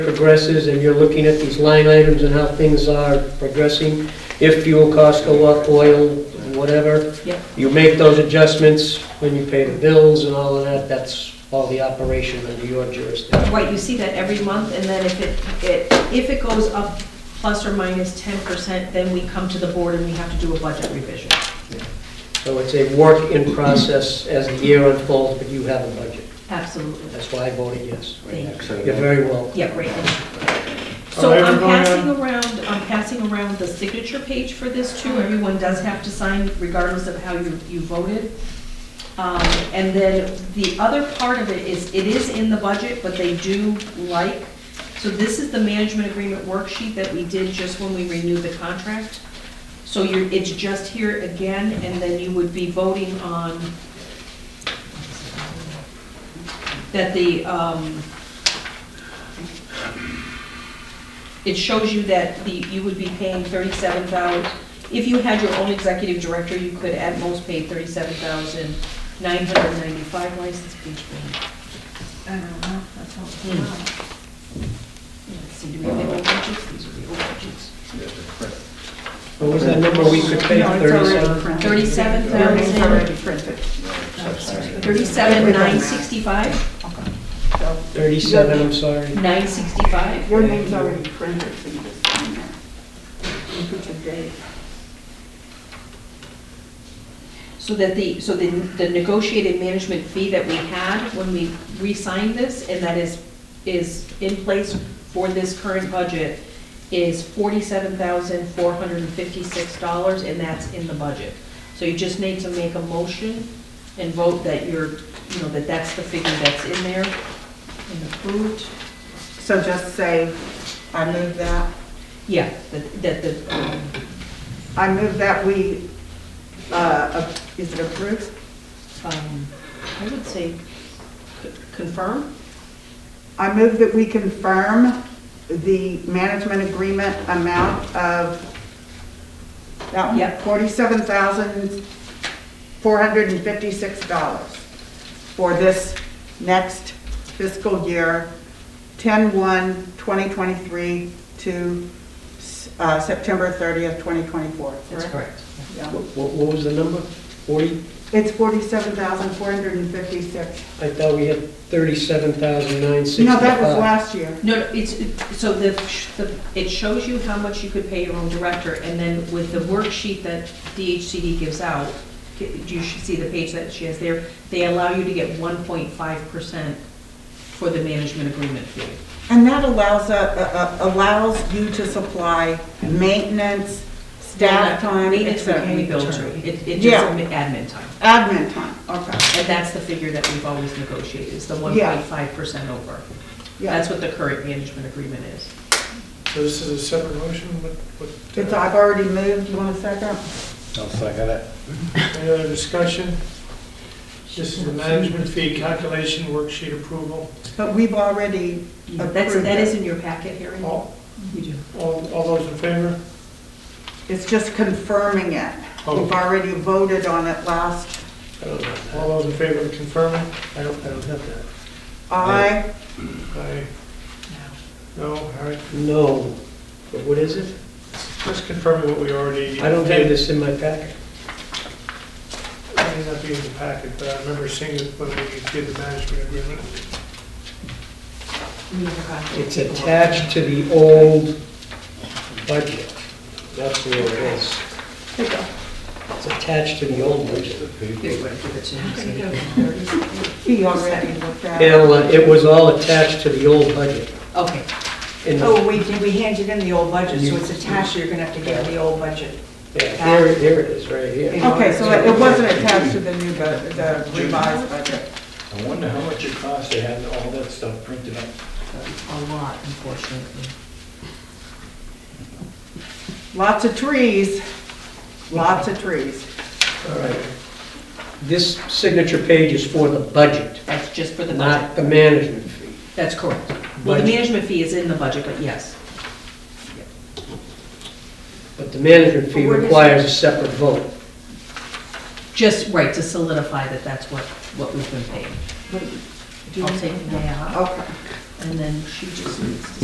progresses and you're looking at these line items and how things are progressing, if fuel costs go up, oil, whatever. Yeah. You make those adjustments when you pay the bills and all of that, that's all the operation under your jurisdiction. Right, you see that every month, and then if it, it, if it goes up plus or minus ten percent, then we come to the board and we have to do a budget revision. So it's a work in process as the year unfolds, but you have a budget. Absolutely. That's why I voted yes. Thank you. You're very welcome. Yeah, right. So I'm passing around, I'm passing around the signature page for this too. Everyone does have to sign regardless of how you, you voted. Um, And then the other part of it is, it is in the budget, but they do like, so this is the management agreement worksheet that we did just when we renewed the contract. So you're, it's just here again, and then you would be voting on that the, um, it shows you that the, you would be paying thirty-seven thousand, if you had your own executive director, you could at most pay thirty-seven thousand nine hundred ninety-five license fees. I don't know, that's all. Hmm. Let's see, do we pay overages? These are the overages. What was that number we could pay, No, it's already 37? printed. 37,000. It's already printed. Oh, Thirty-seven nine sixty-five, So 37, I'm sorry. nine sixty-five, Your name's already printed, so you just sign that. You put your date. so that the, so the, the negotiated management fee that we had when we re-signed this, and that is, is in place for this current budget, is forty-seven thousand four hundred and fifty-six dollars, and that's in the budget. So you just need to make a motion and vote that you're, you know, that that's the figure that's in there and approved. So just say, I move that, Yeah, that, that the, um, I move that we, uh, ap- is it approved? um, I would say c- confirm. I move that we confirm the management agreement amount of, that one? Yep. Forty-seven thousand, four hundred and fifty-six dollars for this next fiscal year, 10-1, 2023 to, uh, September thirtieth, twenty twenty-four, correct? correct. Yeah. What what- what was the number? 40? It's forty-seven thousand, four hundred and fifty-six. I thought we had thirty-seven thousand nine No, that was sixty-five. last year. No, no, it's, so the, the- it shows you how much you could pay your own director, and then with the worksheet that DHCD gives out, you should see the page that she has there, they allow you to get 1.5% for the management agreement fee. And that allows, uh, uh, uh, allows you to supply maintenance, staff time, et Maintenance we cetera. can rebuild to, it, it just Yeah. admin time. Admin time, okay, And that's the figure that we've always negotiated, is the Yeah. 1.5% over. yeah. That's what the current management agreement is. So this is a separate motion, uh, what, what, It's, I've already moved, you want a second? I'll second it. any other discussion? This is the management fee calculation worksheet approval. But we've already, That's, Approve that it. is in your packet, Harry? All, You do. all, all those in favor? it's just confirming it. Oh. We've already voted on it last, I don't know. All those in favor of confirming? I don't, I don't have that. I, Aye. No, all right, No, but what is it? just confirming what we already. I don't have this in my packet. It may not be in the packet, but I remember seeing it when we did the management agreement. You forgot. It's attached to the old budget. That's where it is. It's attached to the old budget. Here, you want to give it to him? he already looked at it. It'll, uh, It was all attached to the old budget. Okay, In the- Oh, we, did- we handed in the old budget, so it's attached, you're gonna have to give the old budget. yeah, Here, here it is, right here. Okay, so it it wasn't attached to the new, bu- the revised budget. I wonder how much it costs to have all that stuff printed up. a lot, unfortunately. Lots of trees, lots of trees. All right. This signature page is for the budget, That's just for the budget. not the management fee. That's correct. Well, the Budget. management fee is in the budget, but yes. But the management fee Where is it? requires a separate vote. Just, right, to solidify that that's what, what we've been paying. I'll take that, Okay. and then she just needs to